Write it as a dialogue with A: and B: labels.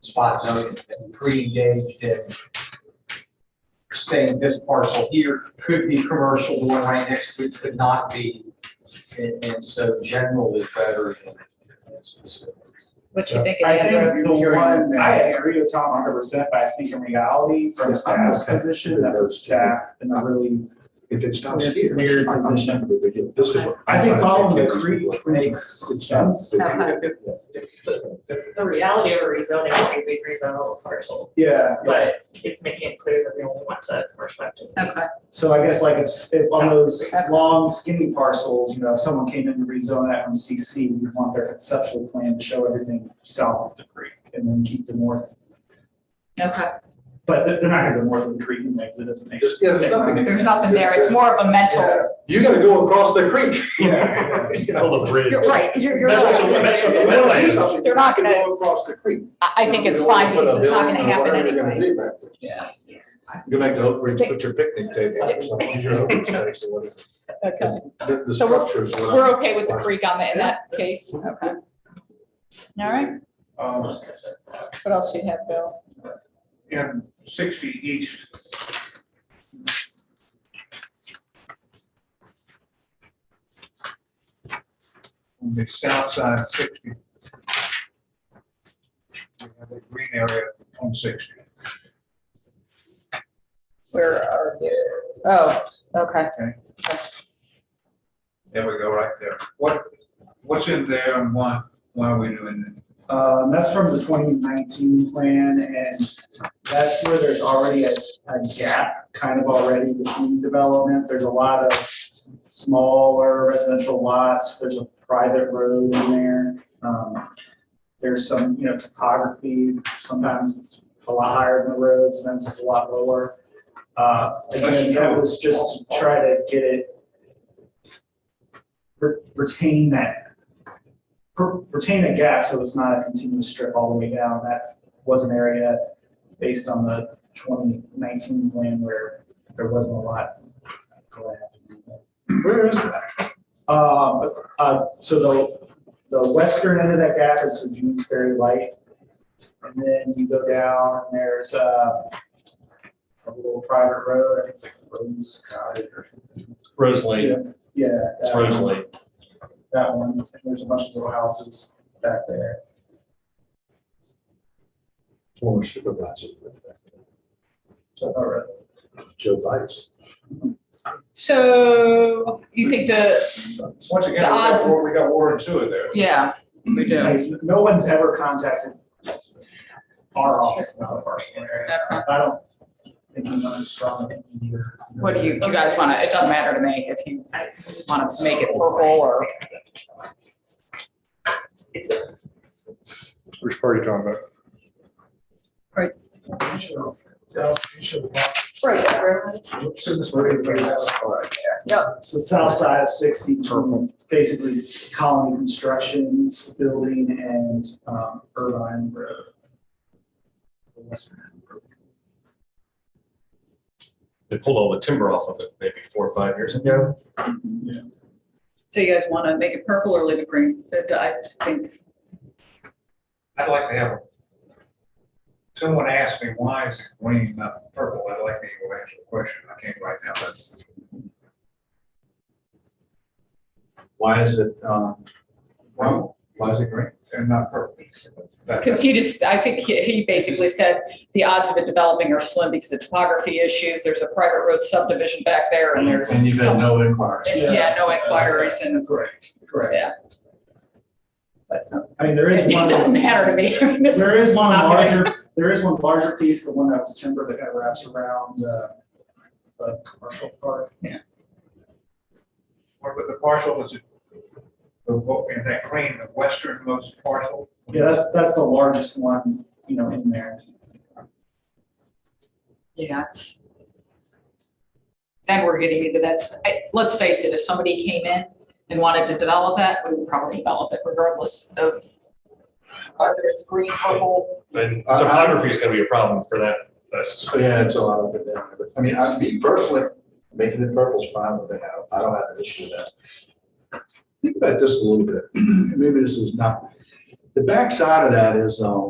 A: spot zoning that we pre-engaged in. Saying this parcel here could be commercial, the one right next to it could not be. And, and so general is better than than specific.
B: What you think of
C: I
B: that?
C: think the
A: Hearing
C: one,
A: now.
C: I agree with Tom hundred percent, but I think in reality, from
D: Yes, I'm
C: staff's
D: okay.
C: position, that was staff in a really
D: If it's not.
C: weird weird position.
D: This is. what-
C: I think following the creek
D: It's-
C: makes
D: it's not-
C: sense.
E: The reality of a rezoning, would be we'd rezone all the parcel,
C: Yeah,
E: but it's making it clear that we only want the commercial activity.
B: Okay,
C: so I guess like if, if on those
B: Okay.
C: long skinny parcels, you know, if someone came in to rezone that from CC, you'd want their conceptual plan to show everything south of the creek and then keep the north.
B: okay.
C: But they're, they're not gonna go north of the creek and exit, it doesn't make.
D: There's- yeah, there's nothing-
C: make
B: There's
C: sense.
B: nothing there. It's more of a mental.
C: Yeah.
D: You gotta go across the creek.
C: Yeah.
D: You know,
F: the bridge.
B: You're right, you're, you're
F: That's what
B: right.
F: the- that's what the wetlands
B: They're not
D: You
B: gonna-
D: Go across the creek.
B: I, I think it's fine because it's not gonna happen anyway.
A: Yeah.
D: Go back to Oak Ridge, put your picnic table. out, so use your open space or whatever.
B: Okay,
D: The, the
B: So we're-
D: structures. what I-
B: we're okay with the creek on it in that case, okay. All right,
E: So
C: Um,
E: most of it's out.
B: what else do you have, Bill?
G: and sixty east. On the south side of sixty. We have a green area on sixty.
B: Where are you? Oh, okay.
G: There we go, right there. What, what's in there and why, why are we doing that?
C: Um, that's from the twenty nineteen plan, and that's where there's already a, a gap kind of already between development. There's a lot of smaller residential lots, there's a private road in there. Um, There's some, you know, topography, sometimes it's a lot higher than the road, sometimes it's a lot lower. Uh, again, that was just to try to get it re- retain that per- retain a gap so it's not a continuous strip all the way down. That was an area based on the twenty nineteen plan where there wasn't a lot. going on. Where is that? Uh, uh, so the, the western end of that gap is the June's Ferry Light. And then you go down and there's a, a little private road, I think it's like Rose Cottage or.
F: Rose Lake,
C: Yeah.
F: it's
C: that one
F: Rose Lake.
C: that one, and there's a bunch of little houses back there.
D: Former supervisor. uh,
C: All right.
D: Joe Bice.
B: So you think the,
G: Once again, we
B: The odds-
G: got, wa- we got water and sewer there.
B: yeah, we do.
C: Like, No one's ever contacted our office about a personal area.
B: Okay.
C: I don't think I'm not strong enough either.
B: What do you, do you guys wanna, it doesn't matter to me if you want to make it purple or,
E: It's a,
D: Which part are you talking about?
C: So, you should walk. So south side of sixty, from basically colony constructions, building and um, Irvine Road. The western end.
F: They pulled all the timber off of it maybe four or five years ago.
B: so you guys wanna make it purple or leave it green? But I think,
G: I'd like to have. Someone asked me, why is it green, not purple? I'd like to go answer the question. I can't right now. That's
D: Why is it, um,
G: wrong
D: why is it green?
G: and not purple. That-
B: because he just, I think he he basically said the odds of it developing are slim because of topography issues. There's a private road subdivision back there and there's.
D: And you've had
B: some-
D: no inquiries.
B: and, Yeah, no inquiries and,
C: Correct, correct.
B: but no.
C: I mean, there is
B: it
C: one.
B: doesn't matter to me. I mean, this
C: There is one
B: not gonna-
C: larger, there is one larger piece, the one that was timber that kind of wraps around, uh, the commercial park.
G: Or with the parcel is it? The, wo- in that green, the westernmost parcel?
C: Yeah, that's, that's the largest one, you know, in there.
B: Yeah. it's- Then we're getting into that, I, let's face it, if somebody came in and wanted to develop that, we would probably develop it regardless of whether it's green, purple,
F: And
D: I- I-
F: topography is gonna be a problem for that, I suspect.
D: Yeah, it's a lot of it down there, but, I mean, I, me personally, making it purple is fine with it, I don't, I don't have an issue with that. Think about this a little bit, maybe this is not, the backside of that is, um,